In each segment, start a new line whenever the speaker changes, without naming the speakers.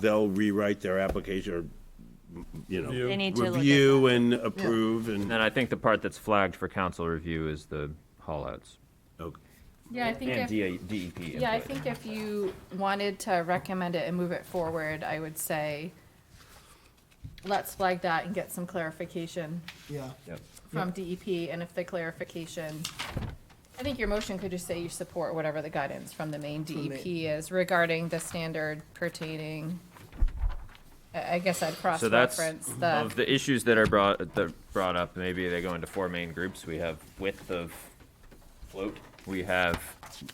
they'll rewrite their application or, you know,
They
need to look at
review and approve
And
and,
then I think the part that's flagged for council review is the haulouts
okay.
Yeah, I think
and
if,
DA DEP.
yeah, I
input.
think if you wanted to recommend it and move it forward, I would say let's flag that and get some clarification
Yeah,
Yep.
from DEP, and if the clarification, I think your motion could just say you support whatever the guidance from the main
the main-
DEP is regarding the standard pertaining. I, I guess I'd
So that's,
cross-reference
of
the,
the issues that are brought, that brought up, maybe they go into four main groups. We have width of float, we have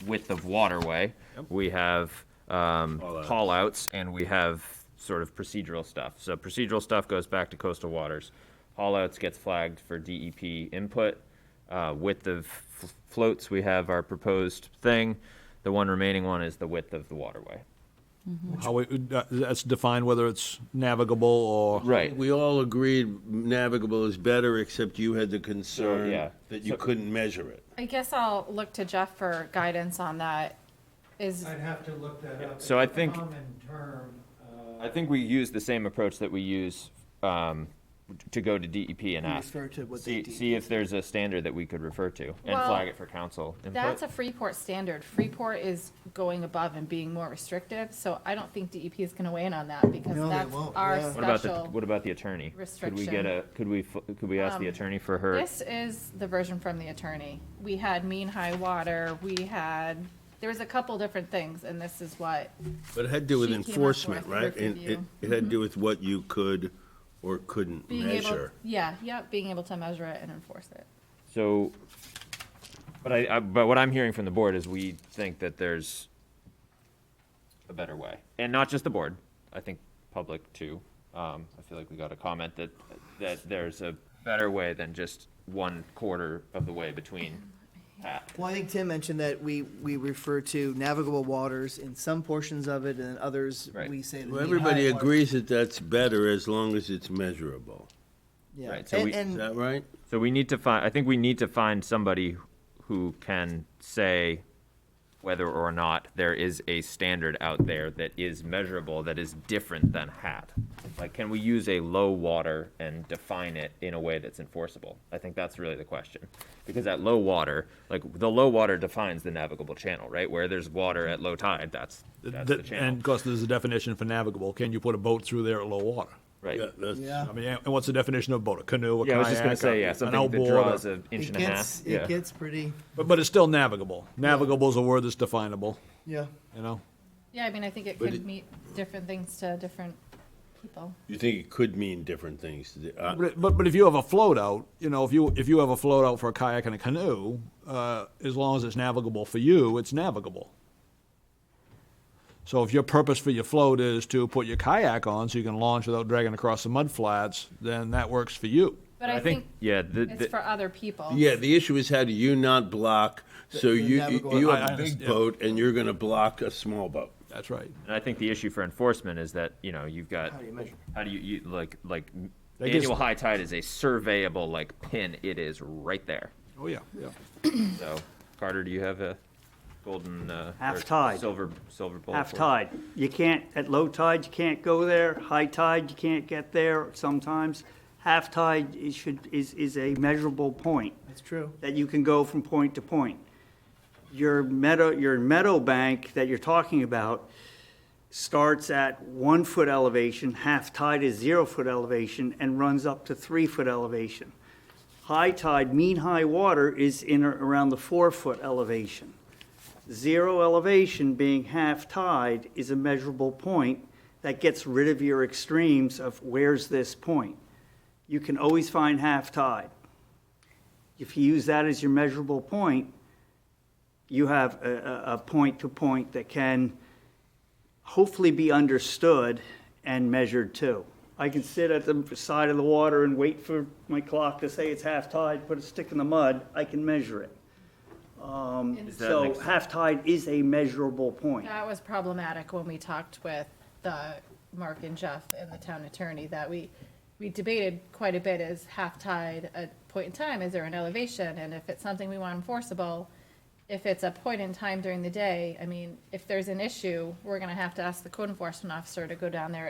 width of waterway, we have, um,
Haulout.
haulouts, and we have sort of procedural stuff. So procedural stuff goes back to coastal waters. Haulouts gets flagged for DEP input. Uh, width of f- floats, we have our proposed thing. The one remaining one is the width of the waterway.
How it, uh, that's defined whether it's navigable or.
Right.
We all agreed navigable is better, except you had the concern
yeah.
that you couldn't measure it.
I guess I'll look to Jeff for guidance on that. Is,
I'd have to look that up.
So I
It's a
think-
Common term, uh,
I think we use the same approach that we use um, to go to DEP and ask.
refer to what they
See,
do.
see if there's a standard that we could refer to and
Well,
flag it for council
That's
input.
a Freeport standard. Freeport is going above and being more restrictive, so I don't think DEP is gonna weigh in on that because
No, they
that's
won't,
our
yeah.
What about the,
special.
what about the attorney? Could we
restriction.
get a, could we, fo- could we ask the
Um,
attorney for her?
This is the version from the attorney. We had mean high water, we had, there was a couple different things, and this is what,
But it had to do with
She came up
enforcement,
with
right? And it,
review. Mm-hmm.
it had to do with what you could or couldn't
being able,
measure.
yeah, yep, being able to measure it and enforce it.
So, but I, I- but what I'm hearing from the board is we think that there's a better way. And not just the board, I think public too. Um, I feel like we got a comment that, that there's a better way than just one quarter of the way between that.
well, I think Tim mentioned that we, we refer to navigable waters in some portions of it, and in others,
Right.
we say. the
Well,
mean
everybody
high water.
agrees that that's better as long as it's measurable.
Yeah.
Right, so
And-
we-
Is
And,
that right?
So we need to find, I think we need to find somebody who can say whether or not there is a standard out there that is measurable, that is different than hat. Like, can we use a low water and define it in a way that's enforceable? I think that's really the question. Because at low water, like, the low water defines the navigable channel, right? Where there's water at low tide, that's, that's the
Th- And
channel.
of course, there's a definition for navigable. Can you put a boat through there at low water?
Right.
Yeah, that's-
yeah.
I mean, and what's the definition of boat? A canoe, a kayak?
Yeah, I was just gonna say,
a-
yeah,
an
something that
outboard,
draws
or-
an inch
It
and a half,
gets,
yeah.
it gets pretty,
But, but it's still navigable. Navigable is a word that's definable,
yeah.
you know?
Yeah, I mean, I think it
But
could
it-
mean different things to different people.
You think it could mean different things. to the- uh,
But, it- but, but if you have a float out, you know, if you, if you have a float out for a kayak and a canoe, uh, as long as it's navigable for you, it's navigable. So if your purpose for your float is to put your kayak on so you can launch without dragging across the mud flats, then that works for you.
But I think
Yeah, the,
it's
the,
for other people.
Yeah, the issue is how do you not block, so you,
navigable-
you
I-
have
I
a big
understand.
boat and you're gonna block a small boat.
That's right.
And I think the issue for enforcement is that, you know, you've got,
How do you measure?
how do you, you, like, like,
That gives-
annual high tide is a surveyable, like, pin, it is right there.
Oh, yeah, yeah.
So, Carter, do you have a golden, uh? or
Half tide.
Silver, silver bullet?
Half
for-
tide, you can't, at low tide, you can't go there, high tide, you can't get there sometimes. Half tide is should, is, is a measurable point,
That's true.
that you can go from point to point. Your meadow, your meadow bank that you're talking about starts at one foot elevation, half tide is zero foot elevation, and runs up to three foot elevation. High tide, mean high water is in or around the four foot elevation. Zero elevation being half tide is a measurable point that gets rid of your extremes of where's this point. You can always find half tide. If you use that as your measurable point, you have a, a, a point to point that can hopefully be understood and measured too. I can sit at the side of the water and wait for my clock to say it's half tide, put a stick in the mud, I can measure it. Um,
And
that
So
next-
half tide is a measurable point.
That was problematic when we talked with the, Mark and Jeff and the town attorney, that we, we debated quite a bit is half tide a point in time, is there an elevation? And if it's something we want enforceable, if it's a point in time during the day, I mean, if there's an issue, we're gonna have to ask the code enforcement officer to go down there